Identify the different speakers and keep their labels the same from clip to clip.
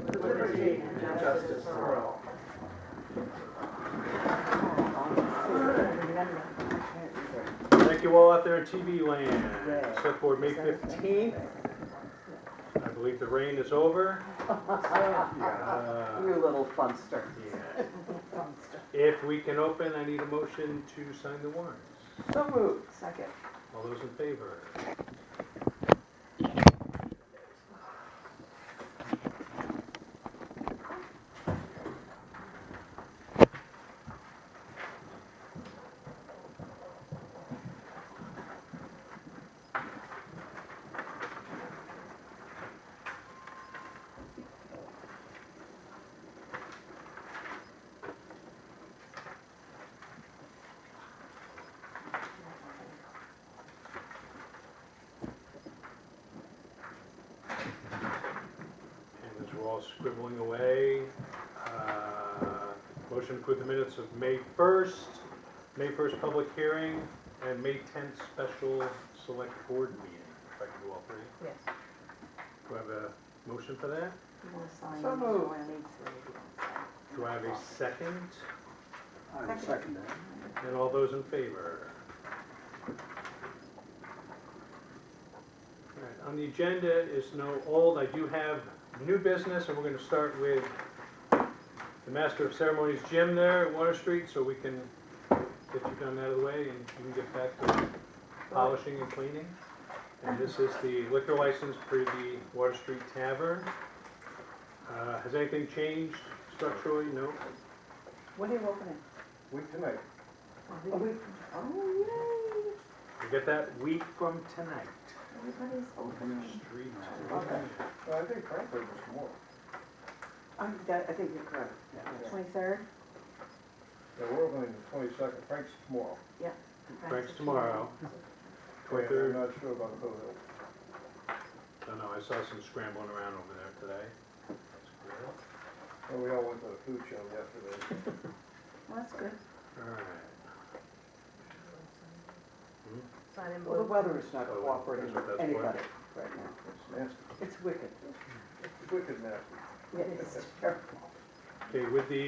Speaker 1: Justice for Justice for all.
Speaker 2: Thank you all out there in TV land. Select Board, May 15th. I believe the rain is over. Uh,
Speaker 1: You little funster.
Speaker 2: yeah. If we can open, I need a motion to sign the warrants.
Speaker 1: So moved.
Speaker 3: Second.
Speaker 2: All those in favor? And as we're all scribbling away, uh, motion to approve the minutes of May 1st, May 1st public hearing, and May 10th special select board meeting. If I can do all three.
Speaker 3: Yes.
Speaker 2: Do I have a motion for
Speaker 3: You
Speaker 2: that?
Speaker 3: wanna sign
Speaker 1: So
Speaker 3: these,
Speaker 1: moved.
Speaker 3: or I need to-
Speaker 2: Do I have a second?
Speaker 4: I would second that.
Speaker 2: And all those in favor? All right, On the agenda is no old, I do have new business, and we're gonna start with the Master of Ceremonies Jim there at Water Street, so we can get you done out of the way, and you can get back to polishing and cleaning. And this is the liquor license for the Water Street Tavern. Uh, Has anything changed structurally? No?
Speaker 3: When are you opening?
Speaker 4: Week tonight.
Speaker 3: A week. Oh,
Speaker 2: We get that week from tonight.
Speaker 3: yay, everybody's opening.
Speaker 2: Street.
Speaker 3: Okay.
Speaker 4: Well, I think frankly, it was more.
Speaker 3: I that- I think you're correct. Twenty-third?
Speaker 4: Yeah, we're opening the twenty-second, Frank's tomorrow.
Speaker 2: Frank's tomorrow. Twenty-third,
Speaker 4: And I'm not sure about the Hill.
Speaker 2: I don't know, I saw some scrambling around over there today.
Speaker 4: Well, we all went to the food show yesterday.
Speaker 3: Well, that's good.
Speaker 2: Alright,
Speaker 5: Sign in
Speaker 1: Well, the
Speaker 5: blue.
Speaker 1: weather is not
Speaker 2: Oh,
Speaker 1: cooperating
Speaker 2: that's what
Speaker 1: with
Speaker 2: that's for.
Speaker 1: anybody right now.
Speaker 4: It's nasty,
Speaker 1: It's wicked.
Speaker 4: it's wicked nasty.
Speaker 3: It is terrible.
Speaker 2: okay, with the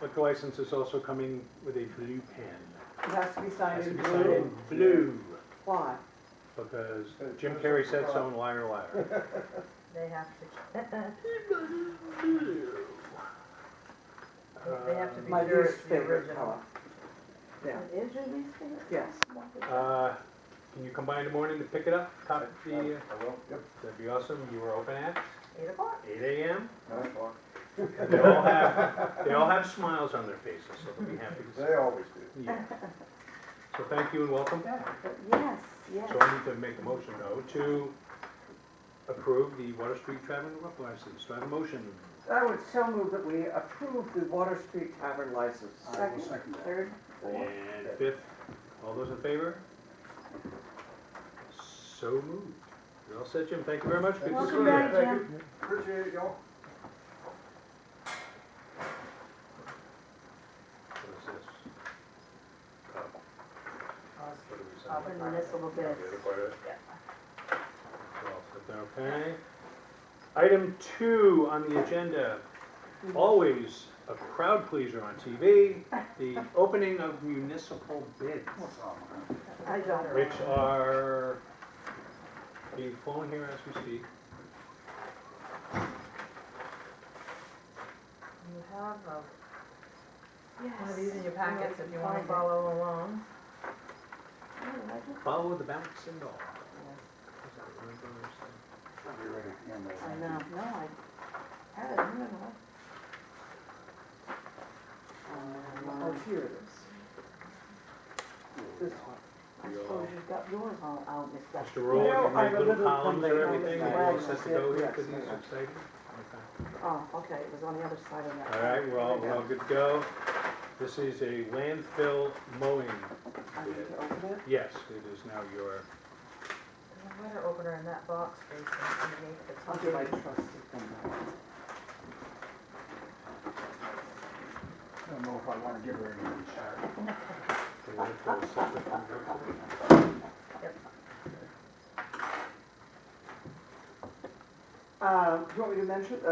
Speaker 2: liquor license is also coming with a blue pen.
Speaker 1: It has to be
Speaker 2: Has
Speaker 1: signed
Speaker 2: to
Speaker 1: in
Speaker 2: be signed
Speaker 1: blue.
Speaker 2: in blue,
Speaker 1: Why?
Speaker 2: because Jim Carrey said so in Liar Liar.
Speaker 5: They have to, they have to
Speaker 2: Um,
Speaker 5: be
Speaker 1: My
Speaker 5: sure
Speaker 1: least
Speaker 5: it's the
Speaker 1: favorite
Speaker 5: original.
Speaker 1: color. Yeah.
Speaker 3: It is your least favorite?
Speaker 1: Yes.
Speaker 2: Uh, can you come by in the morning to pick it up, copy the, uh,
Speaker 4: I will, yep,
Speaker 2: that'd be awesome, you were open at
Speaker 5: Eight o'clock.
Speaker 2: eight AM?
Speaker 4: nine o'clock.
Speaker 2: And They all have, they all have smiles on their faces, so they'll be happy to see.
Speaker 4: They always do.
Speaker 2: Yeah. So thank you and welcome back.
Speaker 3: But yes, yes.
Speaker 2: So I need to make a motion though to approve the Water Street Tavern Liquor License. Do I have a motion?
Speaker 1: I would so move that we approve the Water Street Tavern license.
Speaker 3: Second, third, fourth.
Speaker 2: And fifth, all those in favor? So moved. You're all set, Jim. Thank you very much. Good to see
Speaker 3: Welcome
Speaker 2: you.
Speaker 3: back,
Speaker 4: Thank
Speaker 3: Jim.
Speaker 4: Appreciate it, y'all.
Speaker 2: What is this? Oh, what do we sign?
Speaker 5: Up in municipal
Speaker 2: Yeah,
Speaker 5: bid.
Speaker 2: the other part of it.
Speaker 5: Yeah.
Speaker 2: So I'll put that, Okay. Item two on the agenda,
Speaker 1: Mm-hmm.
Speaker 2: always a crowd pleaser on TV, the opening of municipal bids,
Speaker 3: I don't.
Speaker 2: which are being flown here as we speak.
Speaker 5: You have uh, one of
Speaker 3: Yes.
Speaker 5: these in your packets if you want
Speaker 3: Find
Speaker 5: to
Speaker 3: it.
Speaker 5: follow along.
Speaker 3: Oh, I like it.
Speaker 2: Follow the bounce and all.
Speaker 3: I know, no, I had it, I don't know.
Speaker 1: Oh, here it is. This one.
Speaker 3: I suppose you've got yours all out, Miss Beth.
Speaker 2: Just to roll, you
Speaker 1: I have
Speaker 2: make
Speaker 1: a
Speaker 2: little
Speaker 1: little
Speaker 2: columns
Speaker 1: thing
Speaker 2: or
Speaker 1: that I
Speaker 2: everything,
Speaker 1: just
Speaker 2: and you're all
Speaker 1: write.
Speaker 2: set to go here for
Speaker 1: Yes,
Speaker 2: these,
Speaker 1: yes.
Speaker 2: exciting. Okay.
Speaker 3: Oh, okay, it was on the other side of that.
Speaker 2: All right, we're all, we're all good to go. This is a landfill mowing
Speaker 1: I need
Speaker 2: bid.
Speaker 1: to open it.
Speaker 2: Yes, it is now your,
Speaker 5: There's a letter opener in that box facing underneath the
Speaker 1: I'll
Speaker 5: top.
Speaker 1: do my trusty thing.
Speaker 4: I don't know if I wanna give her any charge.
Speaker 2: the landfill separate from your-
Speaker 1: Uh, do you want me to mention, uh,